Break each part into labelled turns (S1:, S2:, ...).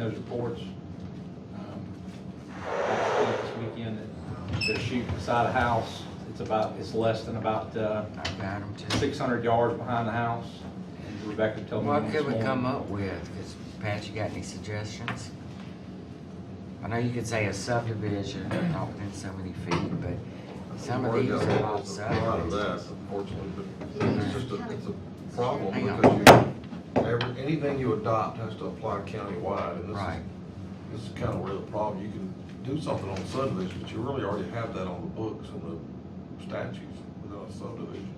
S1: those reports. Um, This weekend, they're shooting beside a house. It's about, it's less than about uh,
S2: I've got them too.
S1: 600 yards behind the house. And Rebecca told me
S2: What
S1: this
S2: could we come
S1: morning.
S2: up with? Cause Pat, you got any suggestions? I know you could say a subdivision, not within so many feet, but some of
S3: Worried
S2: these are all
S3: about A lot of that,
S2: subdivisions.
S3: unfortunately, but it's just a, it's a problem
S2: Hang on.
S3: because you, every, anything you adopt has to apply countywide, and this
S2: Right.
S3: is, this is kind of where the problem, you can do something on subdivision, but you really already have that on the books and the statutes within a subdivision.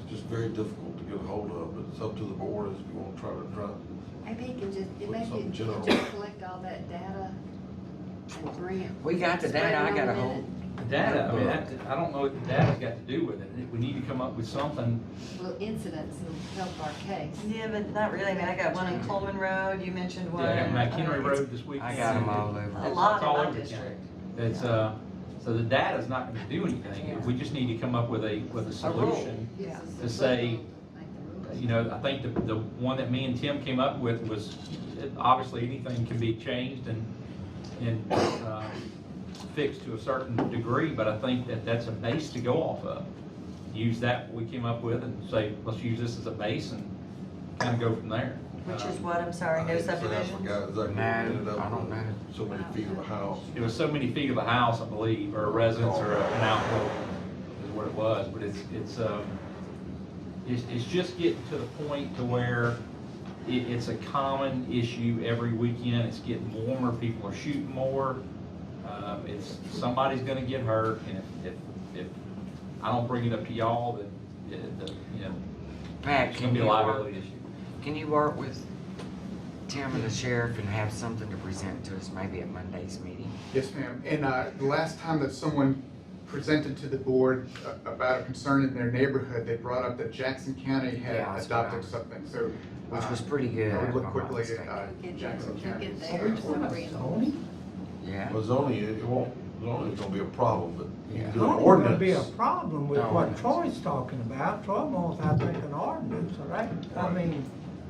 S3: It's just very difficult to get a hold of, but it's up to the board if you want to try to try,
S4: Maybe you can just,
S3: Put
S4: maybe you
S3: something
S4: can
S3: general.
S4: just collect all that data and bring it.
S2: We got the
S4: spread
S2: data,
S4: it
S2: I
S4: on
S2: got
S4: the
S2: a whole,
S4: minute.
S1: The Data, I mean, that- I don't know what the data's got to do with it. We need to come up with something.
S4: Well, incidents will help our case.
S5: Yeah, but not really. I mean, I got one on Coleman Road. You mentioned one.
S1: Yeah, McHenry
S5: Uh,
S1: Road this weekend.
S2: I got them all
S5: A
S2: over.
S5: lot
S1: It's all
S5: in my
S1: over the county.
S5: district.
S1: It's, uh, so the data's not gonna do anything. We just need to come up with a, with a
S5: A rule.
S1: solution.
S4: Yeah.
S1: To say,
S4: Like the rules.
S1: You know, I think the, the one that me and Tim came up with was, it- obviously, anything can be changed and, and, uh, fixed to a certain degree, but I think that that's a base to go off of. Use that, what we came up with, and say, let's use this as a base and kind of go from there.
S5: Which is
S1: Uh,
S5: what? I'm sorry,
S3: I
S5: no
S3: hate to say, I
S5: subdivisions?
S3: forgot exactly where we
S2: No,
S3: ended up
S2: I don't
S3: with
S2: know.
S3: So many feet of a house.
S1: It was so many feet of a house, I believe, or a residence or a- an outbuilding is what it was, but it's, it's, um, it's, it's just getting to the point to where it, it's a common issue every weekend. It's getting warmer, people are shooting more. Um, it's, somebody's gonna get hurt and if, if, if I don't bring it up to y'all, then, it- the, you know,
S2: Pat,
S1: it's gonna
S2: can
S1: be a
S2: you work,
S1: liability issue.
S2: can you work with Tim and the sheriff and have something to present to us maybe at Monday's meeting?
S6: Yes, ma'am. And uh, the last time that someone presented to the board a- about a concern in their neighborhood, they brought up that Jackson County had
S2: Yeah, that's what I
S6: adopted
S2: was-
S6: something, so.
S2: Which
S6: uh,
S2: was pretty good,
S6: I would
S2: if
S6: look
S2: I'm not
S6: quickly at
S2: mistaken.
S6: uh,
S4: Get there,
S6: Jackson
S4: get
S6: County.
S4: there. Are we talking about
S7: zoning?
S2: Yeah,
S3: Well, zoning, it it won't, zoning's gonna be a problem, but you
S2: Yeah.
S3: can do an
S7: There's gonna be a
S3: ordinance.
S7: problem with
S2: No,
S7: what
S2: ordinance.
S7: Troy's talking about. Troy wants, I think, an ordinance, all right? I
S3: Right.
S7: mean,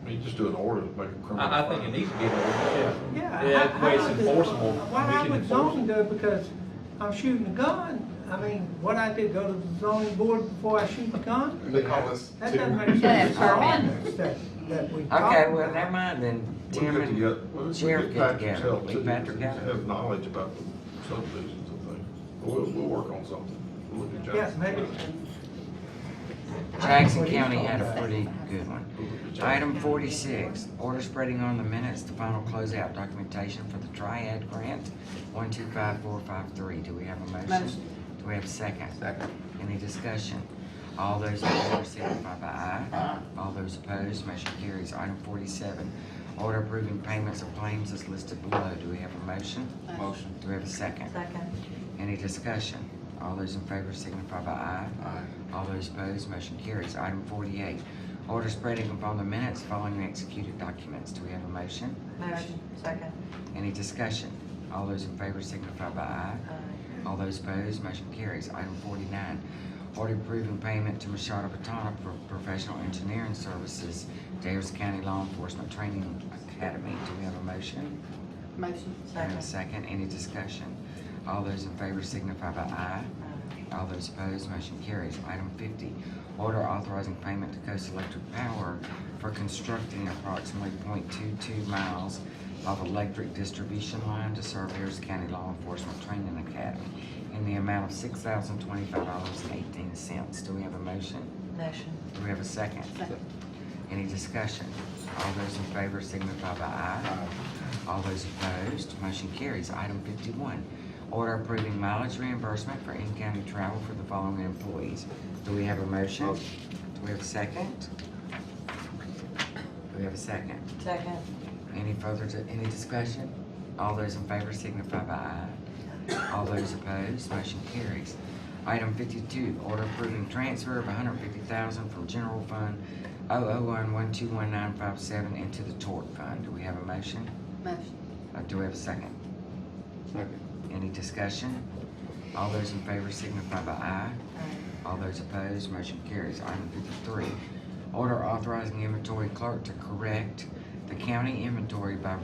S3: I mean, just do an ordinance, make a criminal.
S1: I, I think it
S3: offense.
S1: needs to be, yeah.
S7: yeah.
S1: Yeah,
S7: how-
S1: that way it's
S7: how does-
S1: enforceable.
S7: Why
S1: We
S7: I
S1: can
S7: would
S1: enforce
S7: zone though, because I'm shooting a gun. I mean, what I did, go to the zoning board before I shoot the gun?
S6: They call us to.
S7: That doesn't make sense. It's an
S4: permit.
S7: ordinance that, that we talked
S2: okay, well, never
S7: about.
S2: mind then,
S3: We'll
S2: Tim
S3: get together- we'll- we'll
S2: and sheriff get
S3: Patrick
S2: together,
S3: Hill,
S2: we
S3: too,
S2: better
S3: to
S2: together.
S3: Have knowledge about the subdivisions and things. We'll, we'll work on something. We'll look at
S7: Yes,
S3: Jackson.
S7: maybe.
S2: Jackson
S7: What he's
S2: County
S7: talking
S2: had a
S7: about.
S2: pretty good one.
S3: We'll look at Jackson.
S2: Item forty-six, order spreading on the minutes the final closeout documentation for the Triad Grant, one two five four five three. Do we have a motion?
S4: Motion.
S2: Do we have a second? Second. Any discussion? All those in favor signify by aye. Aye. All those opposed, motion carries. Item forty-seven, order approving payments of claims as listed below. Do we have a motion?
S4: Motion.
S2: Do we have a second?
S5: Second.
S2: Any discussion? All those in favor signify by aye. Aye. All those opposed, motion carries. Item forty-eight, order spreading upon the minutes following executed documents. Do we have a motion?
S5: Motion. Second.
S2: Any discussion? All those in favor signify by aye.
S5: Uh,
S2: All those opposed, motion carries. Item forty-nine, order approving payment to Machado Patana for professional engineering services, Davis County Law Enforcement Training Academy. Do we have a motion?
S4: Motion.
S2: Do we have a second?
S5: Second.
S2: Any discussion? All those in favor signify by aye.
S5: Uh,
S2: All those opposed, motion carries. Item fifty, order authorizing payment to Coast Electric Power for constructing approximately 0.22 miles of electric distribution line to serve Harris County Law Enforcement Training Academy in the amount of six thousand twenty-five dollars and eighteen cents. Do we have a motion?
S5: Motion.
S2: Do we have a second?
S4: Second.
S2: Any discussion? All those in favor signify by aye. All those opposed, motion carries. Item fifty-one, order approving mileage reimbursement for in-county travel for the following employees. Do we have a motion? Do we have a second? Do we have a second?
S5: Second.
S2: Any further, di- any discussion? All those in favor signify by aye. All those opposed, motion carries. Item fifty-two, order approving transfer of 150000 hundred fifty thousand from general fund 001121957 into the tort fund. Do we have a motion?
S4: Motion.
S2: Uh, Do we have a second? Second. Any discussion? All those in favor signify by aye. All those opposed, motion carries. Item fifty-three, order authorizing inventory clerk to correct the county inventory by